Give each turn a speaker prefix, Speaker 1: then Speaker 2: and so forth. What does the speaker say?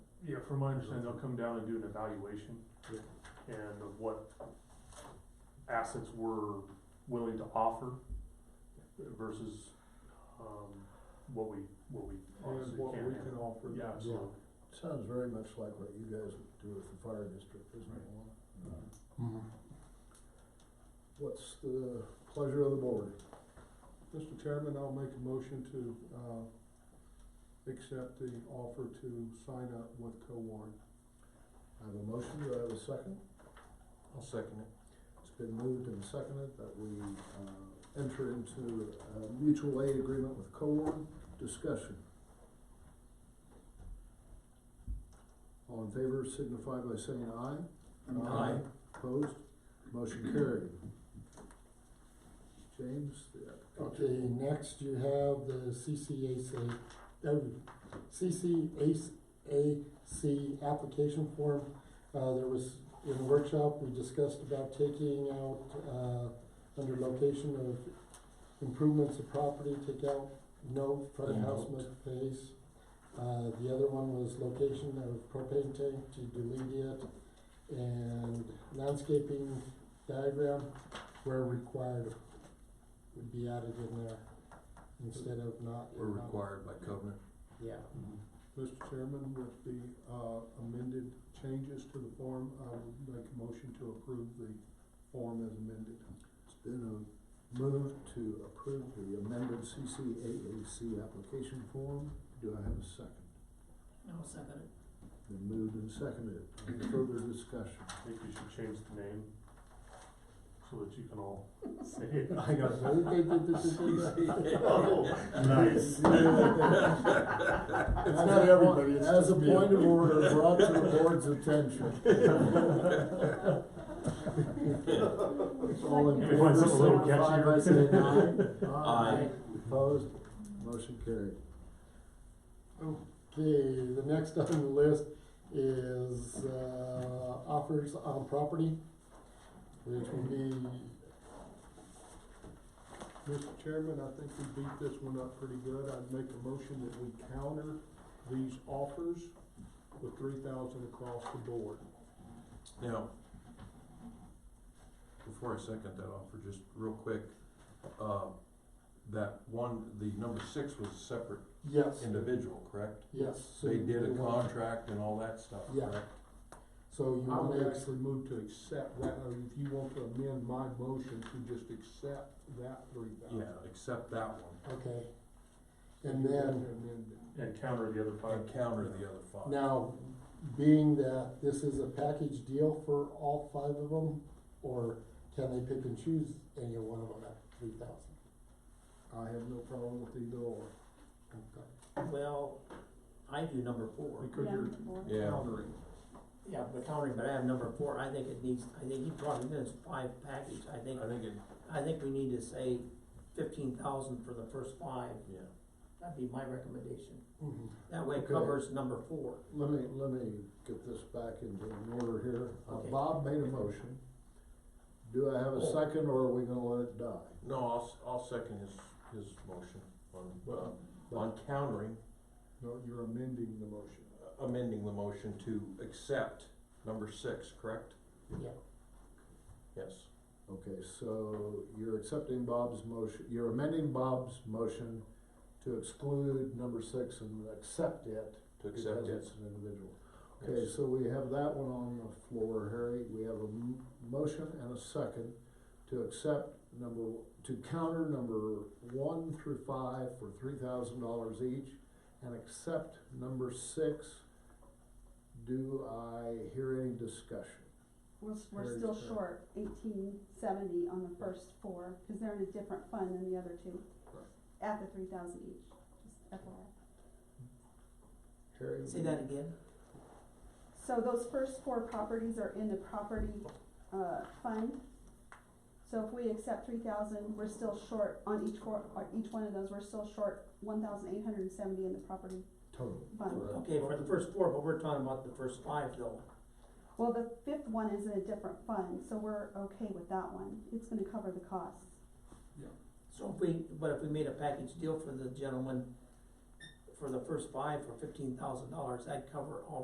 Speaker 1: Yeah, from my understanding, they'll come down and do an evaluation and of what assets we're willing to offer versus, um, what we, what we
Speaker 2: And
Speaker 1: obviously
Speaker 2: what we
Speaker 1: can't
Speaker 2: can
Speaker 1: handle.
Speaker 2: offer.
Speaker 1: Yeah,
Speaker 2: them.
Speaker 1: absolutely.
Speaker 3: Sounds very much like what you guys do with the fire district, isn't it, Lana? What's the pleasure of the board?
Speaker 2: Mr. Chairman, I'll make a motion to, uh, accept the offer to sign up with co-warn.
Speaker 3: I have a motion, do I have a second?
Speaker 2: I'll second it.
Speaker 3: It's been moved and seconded that we, uh, enter into a mutual aid agreement with Cowan. Discussion. All in favor signify by saying aye. Opposed? Motion carried. James, the applicant.
Speaker 4: Okay, next you have the CCAC, uh, CCAC application form. Uh, there was, in the workshop, we discussed about taking out, uh, under location of improvements of property, take out note, front of house must face. Uh, the other one was location of propane tank to delete it, and landscaping diagram where required, would be added in there instead of not.
Speaker 5: We're required by covenant.
Speaker 4: Yeah.
Speaker 2: Mr. Chairman, with the, uh, amended changes to the form, I would make a motion to approve the form as amended.
Speaker 3: It's been a move to approve the amended CCAAC application form. Do I have a second?
Speaker 6: I'll second it.
Speaker 3: Been moved and seconded. Any further discussion?
Speaker 1: Maybe you should change the name so that you can all say it. I got Nice.
Speaker 3: It's
Speaker 4: not everybody, it's
Speaker 3: As a
Speaker 4: just me.
Speaker 3: point of order brought to the board's attention. All in
Speaker 1: You want
Speaker 3: favor,
Speaker 1: something a little
Speaker 3: signify by saying aye.
Speaker 5: Aye.
Speaker 3: Opposed, motion carried.
Speaker 4: Okay, the next on the list is, uh, offers on property, which would be,
Speaker 2: Mr. Chairman, I think we beat this one up pretty good. I'd make a motion that we counter these offers with three thousand across the board.
Speaker 5: Now, before I second that offer, just real quick, uh, that one, the number six was a separate
Speaker 4: yes,
Speaker 5: individual, correct?
Speaker 4: yes.
Speaker 5: They did a
Speaker 4: You want-
Speaker 5: contract and all that stuff,
Speaker 4: Yeah.
Speaker 5: correct?
Speaker 4: So you
Speaker 2: I would
Speaker 4: wanna, ex-
Speaker 2: actually move to accept that, or if you want to amend my motion to just accept that three
Speaker 5: Yeah,
Speaker 2: thousand.
Speaker 5: except that one,
Speaker 4: okay. And then,
Speaker 1: And counter the other five.
Speaker 5: and counter the other five.
Speaker 4: now, being that this is a package deal for all five of them, or can they pick and choose any one of them at three thousand?
Speaker 2: I have no problem with either or.
Speaker 4: Okay.
Speaker 6: Well, I do number four.
Speaker 2: Because you're
Speaker 5: Yeah,
Speaker 2: countering.
Speaker 6: Yeah, but counting, but I have number four, I think it needs, I think you brought it in as five package, I think,
Speaker 5: I think it,
Speaker 6: I think we need to say fifteen thousand for the first five,
Speaker 5: yeah,
Speaker 6: that'd be my recommendation.
Speaker 4: Mhm.
Speaker 6: That way it
Speaker 3: Okay.
Speaker 6: covers number four.
Speaker 3: Let me, let me get this back into an order here. Uh,
Speaker 6: Okay. Oh.
Speaker 3: Bob made a motion. Do I have a second or are we gonna let it die?
Speaker 5: no, I'll, s- I'll second his, his motion on, uh, on countering, uh,
Speaker 2: No, you're amending the motion.
Speaker 5: amending the motion to accept number six, correct?
Speaker 6: Yeah.
Speaker 5: Yes.
Speaker 3: Okay, so you're accepting Bob's motion, you're amending Bob's motion to exclude number six and accept it
Speaker 5: To
Speaker 3: because
Speaker 5: accept it.
Speaker 3: it's an individual. Okay, so we have that one on the floor, Harry. We have a m- motion and a second to accept number, to counter number one through five for three thousand dollars each and accept number six. Do I hear any discussion?
Speaker 7: We're, s- we're
Speaker 3: Very
Speaker 7: still
Speaker 3: fair.
Speaker 7: short eighteen seventy on the first four, cause they're in a different fund than the other two.
Speaker 2: Right.
Speaker 7: At the three thousand each, just FYI.
Speaker 3: Harry?
Speaker 6: Say that again?
Speaker 7: So those first four properties are in the property, uh, fund. So if we accept three thousand, we're still short on each four, on each one of those, we're still short one thousand eight hundred and seventy in the property
Speaker 3: Total.
Speaker 7: fund.
Speaker 6: Okay, for the first four, but we're talking about the first five though.
Speaker 7: Well, the fifth one is in a different fund, so we're okay with that one, it's gonna cover the costs.
Speaker 6: So if we, but if we made a package deal for the gentleman, for the first five for fifteen thousand dollars, that'd cover all